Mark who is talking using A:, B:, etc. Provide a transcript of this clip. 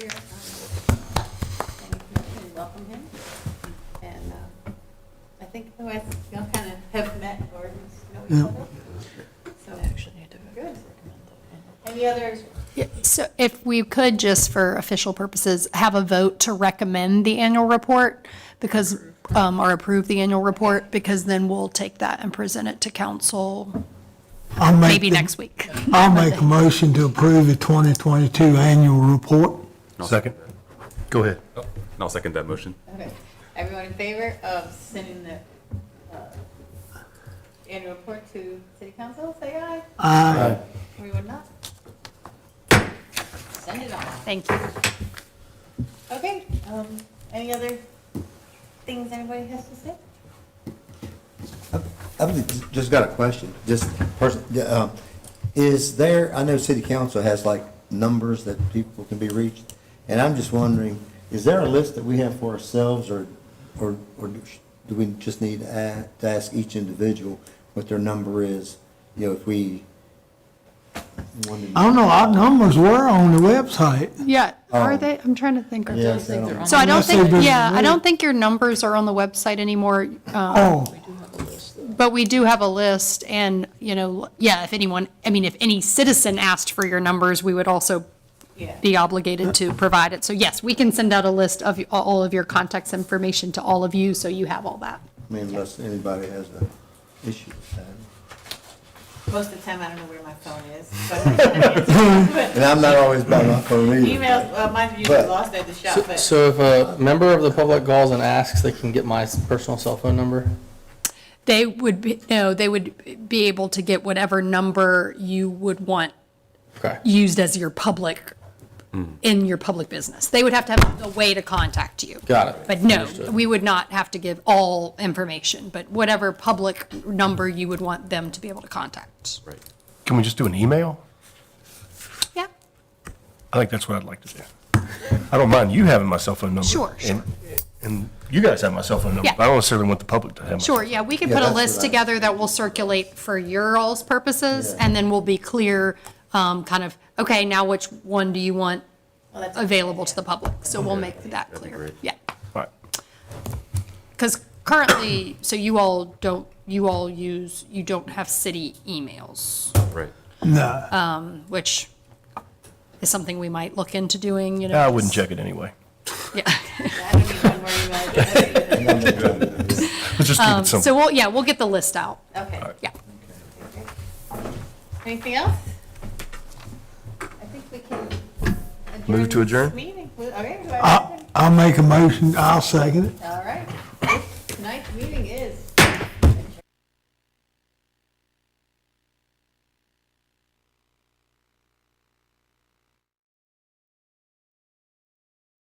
A: uh, oh,
B: Yeah.
A: Any other,
C: Yeah, So if we could, just for official purposes, have a vote to recommend the annual report because, um, or approve the annual report, because then we'll take that and present it to council
B: I'll make
C: maybe
B: the-
C: next week.
B: I'll make a motion to approve the 2022 annual report.
D: Second. Go ahead.
E: And I'll second that motion.
A: okay, everyone in favor of sending the uh, annual report to city council, say aye. Aye. Anyone not? Send it on.
C: Thank you.
A: Okay, um, any other things anybody has to say?
F: I've just got a question, just person, yeah, um, is there, I know city council has like numbers that people can be reached, and I'm just wondering, is there a list that we have for ourselves, or, or, or do we just need to a- to ask each individual what their number is? You know, if we wanted.
B: I don't know, our numbers were on the website.
C: Yeah, are
B: Um,
F: Oh.
C: they, I'm trying to think. of
F: Yeah,
C: those.
F: so I don't-
C: So I don't
B: Unless they've been
C: think, yeah, I don't
B: removed.
C: think your numbers are on the website anymore. um,
B: Oh,
C: But we do have a list and, you know, yeah, if anyone, I mean, if any citizen asked for your numbers, we would also
A: Yeah.
C: be obligated to provide it. So yes, we can send out a list of all of your contacts information to all of you, so you have all that.
F: I mean, unless anybody has an issue with that.
A: Most of the time, I don't know where my phone is, but
F: And I'm not always by my phone either.
A: emails, well, mine usually lost at the shop, but.
G: So if a member of the public calls and asks, they can get my personal cell phone number?
C: They would be, no, they would be able to get whatever number you would want
G: Okay.
C: used as your public, in your public business. They would have to have a way to contact you.
G: Got it.
C: But no,
G: Understood.
C: we would not have to give all information, but whatever public number you would want them to be able to contact.
E: Right.
D: Can we just do an email?
C: Yeah,
D: I think that's what I'd like to do. I don't mind you having my cell phone number.
C: Sure,
D: and- And you guys have my cell phone number.
C: Yeah.
D: but I don't necessarily want the public to have my.
C: sure, yeah, we could
F: Yeah,
C: put a
F: that's
C: list
F: what I-
C: together that will circulate for your all's purposes,
F: Yeah.
C: and then we'll be clear, um, kind of, okay, now which one do you want
A: Well, that's-
C: available to the public? So we'll make that
E: That'd be
C: clear,
E: great.
C: yeah.
D: All right.
C: Because currently, so you all don't, you all use, you don't have city emails.
E: Right.
B: no.
C: which is something we might look into doing, you know.
D: I wouldn't check it anyway.
C: Yeah.
A: I don't need one more email address.
D: Let's just keep it
C: So
D: simple.
C: we'll, yeah, we'll get the list out.
A: Okay.
C: Yeah.
A: Anything else? I think we can.
D: Move to adjourn?
A: this Meeting, okay. do I have
B: Uh, I- I'll make a motion, I'll second it.
A: a- All